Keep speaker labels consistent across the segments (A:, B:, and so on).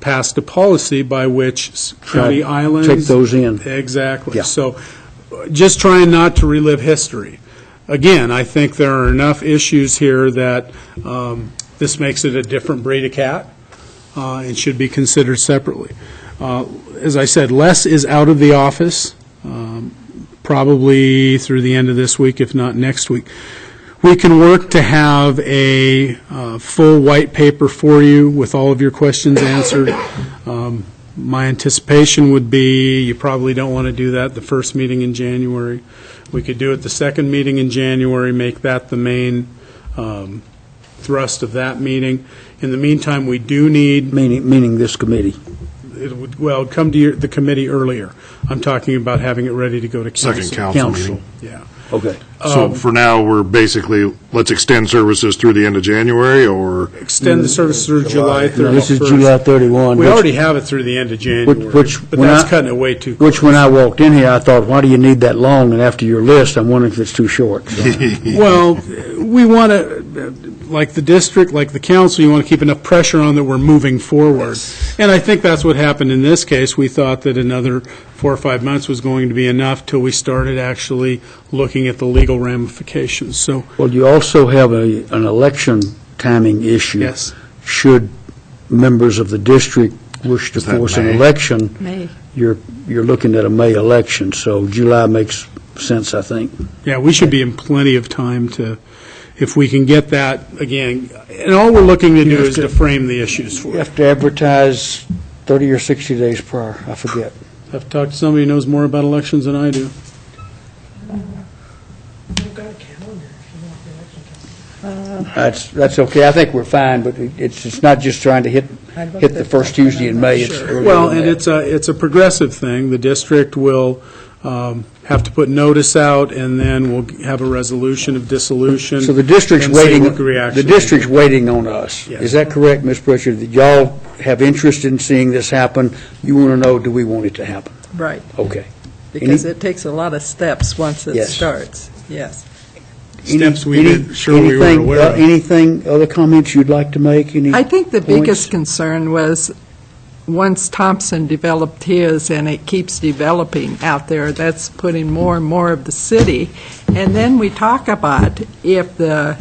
A: passed a policy by which s- county
B: Try to
A: islands.
B: take those in.
A: Exactly.
B: Yeah.
A: So uh, just trying not to relive history. Again, I think there are enough issues here that um, this makes it a different breed of cat uh, and should be considered separately. Uh, As I said, Les is out of the office, um, probably through the end of this week, if not next week. We can work to have a uh, full white paper for you with all of your questions answered. Um, My anticipation would be, you probably don't want to do that the first meeting in January. We could do it the second meeting in January, make that the main um, thrust of that meeting. In the meantime, we do need,
B: meaning, meaning this committee.
A: it would- well, come to your- the committee earlier. I'm talking about having it ready to go to council.
C: Second council meeting.
A: Yeah.
B: Okay.
C: So for now, we're basically, let's extend services through the end of January, or,
A: Extend the service through July 31st.
B: This is July 31.
A: We
B: which-
A: already have it through the end of January,
B: Which- which
A: but
B: when
A: that's
B: I-
A: cutting it way too.
B: Which, when I walked in here, I thought, why do you need that long? And after your list, I'm wondering if it's too short.
A: Well, we want to, like the district, like the council, you want to keep enough pressure on that we're moving forward. And I think that's what happened in this case. We thought that another four or five months was going to be enough till we started actually looking at the legal ramifications. So,
B: Well, you also have a, an election timing issue.
A: Yes.
B: Should members of the district wish to
C: Is that
B: force an
C: May?
B: election.
D: May.
B: You're, you're looking at a May election, so July makes sense, I think.
A: yeah, we should be in plenty of time to, if we can get that, again, and all we're looking to do is to frame the issues for
B: You
A: you.
B: have to advertise 30 or 60 days prior, I forget.
A: I've talked to somebody who knows more about elections than I do.
B: That's, that's okay, I think we're fine, but it- it's, it's not just trying to hit, hit the first Tuesday in May, it's earlier
A: Well,
B: than
A: and
B: that.
A: it's a, it's a progressive thing. The district will um, have to put notice out, and then we'll have a resolution of dissolution.
B: So the district's
A: and see
B: waiting,
A: what reaction
B: the district's waiting on us.
A: Yes.
B: Is that correct, Ms. Pritchard? That y'all have interest in seeing this happen? You want to know, do we want it to happen?
D: Right,
B: Okay.
D: because it takes a lot of steps once it
B: Yes.
D: starts, yes.
A: Steps we
B: Any-
A: didn't, sure we were
B: anything- uh,
A: aware of.
B: Anything, other comments you'd like to make? Any-
D: I think the
B: Points?
D: biggest concern was, once Thompson developed his, and it keeps developing out there, that's putting more and more of the city, and then we talk about if the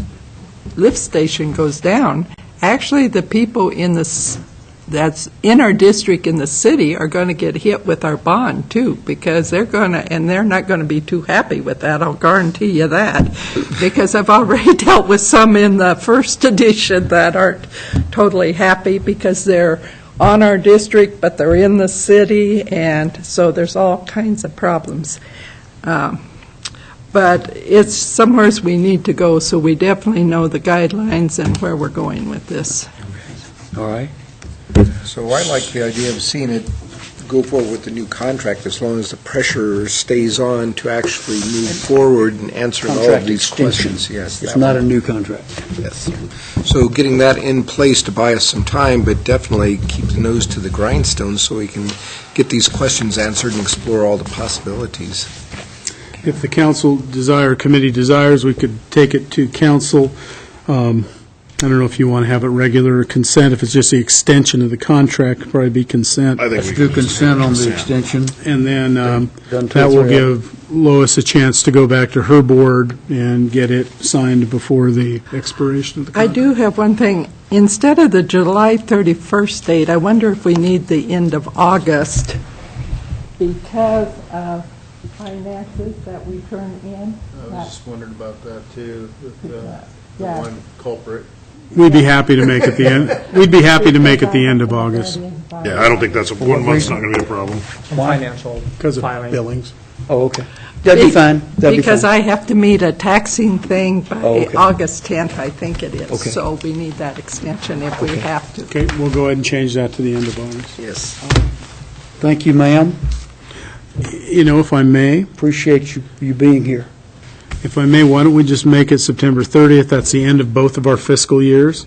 D: lift station goes down, actually, the people in the, s- that's in our district in the city are going to get hit with our bond, too, because they're going to, and they're not going to be too happy with that, I'll guarantee you that, because I've already dealt with some in the first edition that aren't totally happy because they're on our district, but they're in the city, and so there's all kinds of problems. Um, But it's somewheres we need to go, so we definitely know the guidelines and where we're going with this.
B: All right.
E: So I like the idea of seeing it go forward with the new contract, as long as the pressure stays on to actually move forward and answer all of
B: Contract
E: these
B: extension.
E: questions. Yes,
B: It's
E: that
B: not a
E: one,
B: new contract.
E: yes. So getting that in place to buy us some time, but definitely keep the nose to the grindstone so we can get these questions answered and explore all the possibilities.
A: If the council desire, committee desires, we could take it to council. Um, I don't know if you want to have it regular or consent, if it's just the extension of the contract, probably be consent.
C: I think we.
B: Let's do
C: can just
B: consent on the
C: consent.
B: extension.
A: And then um,
B: Done two or
A: that will
B: three of
A: give Lois a chance to go back to her board and get it signed before the expiration of the
D: I
A: contract.
D: do have one thing. Instead of the July 31st date, I wonder if we need the end of August because of finances that we turn in.
F: I was just wondering about that too, with the the
D: Yeah.
F: one culprit.
A: We'd be happy to make it the end, we'd be happy to make it the end of August.
C: Yeah, I don't think that's, a- one month's not going to be a problem.
G: financial
A: Because of
G: filing.
A: billings.
B: Oh, okay. That'd be
D: Be-
B: fine. That'd be
D: Because
B: fine.
D: I have to meet a taxing thing
B: Oh,
D: by
B: okay.
D: August 10th, I think it is.
B: Okay.
D: So we need that extension if we have to.
A: Okay, we'll go ahead and change that to the end of August.
E: Yes.
B: Thank you, ma'am.
A: You know, if I may,
B: Appreciate you, you being here.
A: if I may, why don't we just make it September 30th? That's the end of both of our fiscal years,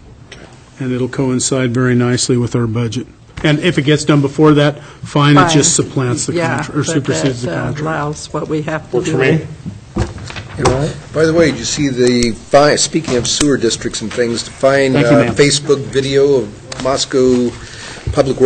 A: and it'll coincide very nicely with our budget. And if it gets done before that, fine, it just
D: Fine.
A: supplants the
D: Yeah,
A: contract, or
D: but
A: supersedes the
D: that, uh,
A: contract.
D: Allows what we have to do.
C: Works for me.
E: By the way, did you see the, fi- speaking of sewer districts and things, to find
B: Thank you,
E: uh,
B: ma'am.
E: Facebook video of Moscow Public